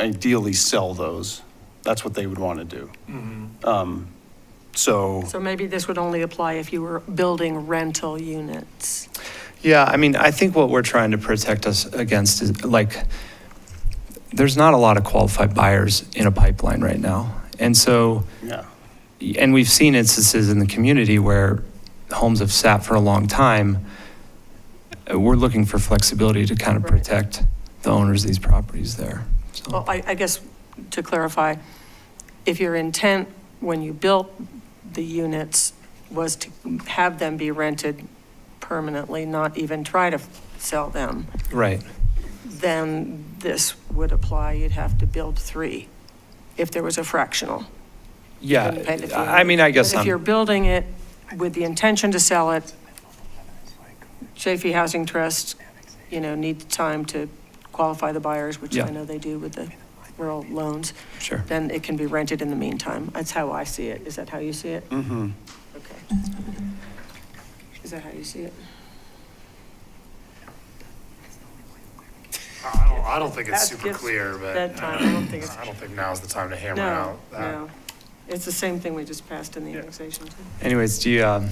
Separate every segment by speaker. Speaker 1: ideally sell those. That's what they would want to do. Um, So,
Speaker 2: So maybe this would only apply if you were building rental units.
Speaker 3: Yeah, I mean, I think what we're trying to protect us against is like, there's not a lot of qualified buyers in a pipeline right now. And so,
Speaker 1: yeah,
Speaker 3: and we've seen instances in the community where homes have sat for a long time. Uh, We're looking for flexibility to kind of
Speaker 2: Right.
Speaker 3: protect the owners of these properties there.
Speaker 2: Well,
Speaker 3: So,
Speaker 2: I, I guess, to clarify, if your intent when you built the units was to have them be rented permanently, not even try to sell them,
Speaker 3: right,
Speaker 2: then this would apply, you'd have to build three, if there was a fractional.
Speaker 3: yeah,
Speaker 2: Depending if you-
Speaker 3: I I mean, I guess
Speaker 2: But if you're
Speaker 3: I'm,
Speaker 2: building it with the intention to sell it, Chafee Housing Trust, you know, needs time to qualify the buyers, which
Speaker 3: Yeah.
Speaker 2: I know they do with the rural loans,
Speaker 3: sure.
Speaker 2: then it can be rented in the meantime. That's how I see it. Is that how you see it? Mm-hmm. Okay. Is that how you see it?
Speaker 4: I don't, I don't think it's
Speaker 2: That
Speaker 4: super
Speaker 2: gives
Speaker 4: clear, but
Speaker 2: That time, I don't think it's,
Speaker 4: I don't think now's the time to hammer
Speaker 2: no,
Speaker 4: out Uh, that.
Speaker 2: no. It's the same thing we just passed in the
Speaker 4: Yeah.
Speaker 2: annexation.
Speaker 3: Anyways, do you um,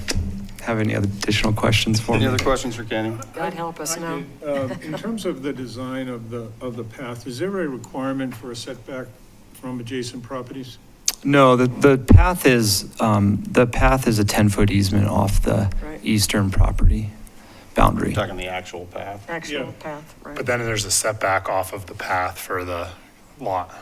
Speaker 3: have any other additional questions for me?
Speaker 1: any other questions for Kenny?
Speaker 5: Um,
Speaker 2: God help us, no.
Speaker 5: Uh, In terms of the design of the, of the path, is there a requirement for a setback from adjacent properties?
Speaker 3: No, the, the path is, um, the path is a 10-foot easement off the
Speaker 2: Right.
Speaker 3: eastern property boundary.
Speaker 1: Talking the actual path.
Speaker 2: Actual
Speaker 5: Yeah.
Speaker 2: path, right.
Speaker 4: But then there's a setback off of the path for the lot.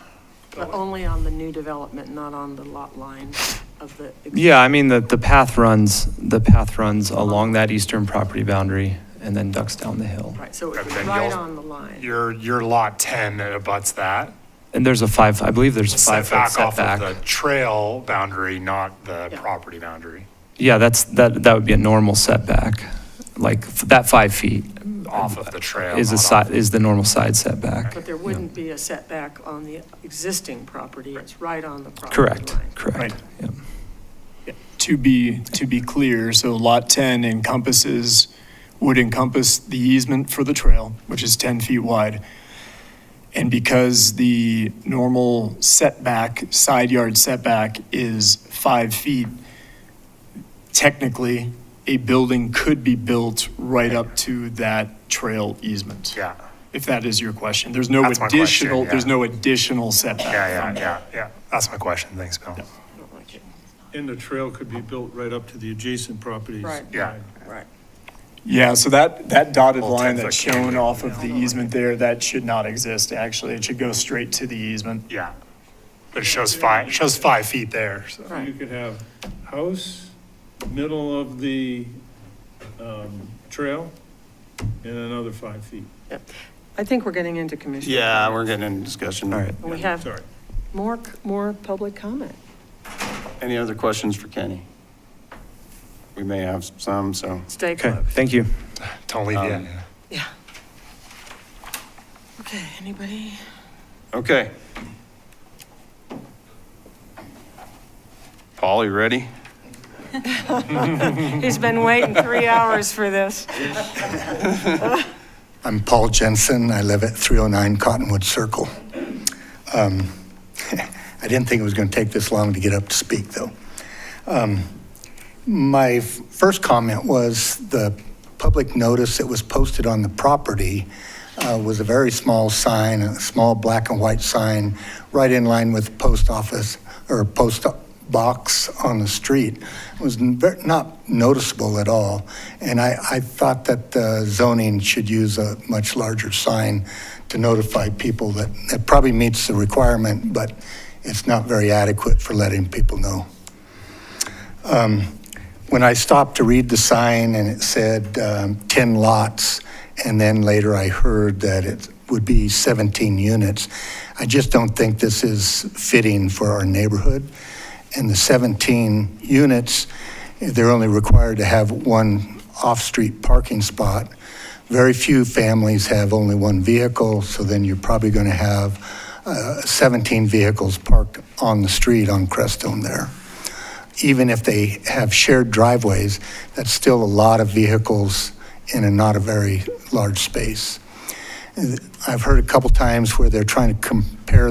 Speaker 2: But only on the new development, not on the lot line of the.
Speaker 3: Yeah, I mean, the, the path runs, the path runs along that eastern property boundary and then ducks down the hill.
Speaker 2: Right, so it
Speaker 4: But
Speaker 2: was
Speaker 4: then
Speaker 2: right
Speaker 4: you'll-
Speaker 2: on the line.
Speaker 4: Your, your lot 10 that abuts that,
Speaker 3: And there's a five, I believe there's five-foot
Speaker 4: setback off of the
Speaker 3: setback.
Speaker 4: trail boundary, not the
Speaker 2: Yeah.
Speaker 4: property boundary.
Speaker 3: Yeah, that's, that, that would be a normal setback, like f- that five feet
Speaker 4: Off of the trail.
Speaker 3: is a
Speaker 4: not
Speaker 3: side,
Speaker 4: off-
Speaker 3: is the normal side setback.
Speaker 2: But there wouldn't be a setback on the existing property, it's right on the property line.
Speaker 3: Correct, correct.
Speaker 6: Right.
Speaker 3: yeah.
Speaker 6: To be, to be clear, so Lot 10 encompasses, would encompass the easement for the trail, which is 10 feet wide. And because the normal setback, side yard setback is five feet, technically, a building could be built right up to that trail easement.
Speaker 4: Yeah,
Speaker 6: If that is your question. There's no
Speaker 4: That's my question,
Speaker 6: additional, there's
Speaker 4: yeah.
Speaker 6: no additional setback.
Speaker 4: yeah, yeah, yeah, yeah. That's my question. Thanks, Bill.
Speaker 2: I don't like it.
Speaker 5: And the trail could be built right up to the adjacent properties.
Speaker 2: Right.
Speaker 4: Yeah.
Speaker 2: Right.
Speaker 6: Yeah, so that, that dotted
Speaker 4: Little 10
Speaker 6: line
Speaker 4: -foot
Speaker 6: that's shown
Speaker 4: canyon.
Speaker 6: off of the easement there, that should not exist, actually. It should go straight to the easement.
Speaker 4: Yeah. But it shows five, it shows five feet there, so.
Speaker 5: So You could have house, middle of the um, trail, and another five feet.
Speaker 2: I think we're getting into commission.
Speaker 1: Yeah, we're getting into discussion.
Speaker 3: All right.
Speaker 2: And we have
Speaker 5: Sorry.
Speaker 2: more, more public comment.
Speaker 1: Any other questions for Kenny? We may have some, so.
Speaker 2: Stay
Speaker 3: Okay,
Speaker 2: close.
Speaker 3: thank you.
Speaker 4: Don't leave
Speaker 1: Um,
Speaker 4: yet.
Speaker 2: Yeah. Okay, anybody?
Speaker 1: Okay. Paul, you ready?
Speaker 2: He's been waiting three hours for this.
Speaker 7: I'm Paul Jensen. I live at 309 Cottonwood Circle. Um, I didn't think it was going to take this long to get up to speak, though. Um, My f- first comment was the public notice that was posted on the property uh, was a very small sign, a small black and white sign, right in line with the post office or post box on the street. It was n- ver- not noticeable at all. And I, I thought that uh, zoning should use a much larger sign to notify people that it probably meets the requirement, but it's not very adequate for letting people know when I stopped to read the sign and it said um, 10 lots, and then later I heard that it would be 17 units, I just don't think this is fitting for our neighborhood. And the 17 units, they're only required to have one off-street parking spot. Very few families have only one vehicle, so then you're probably going to have uh, 17 vehicles parked on the street on Crestone there even if they have shared driveways, that's still a lot of vehicles in a not a very large space. I've heard a couple times where they're trying to com-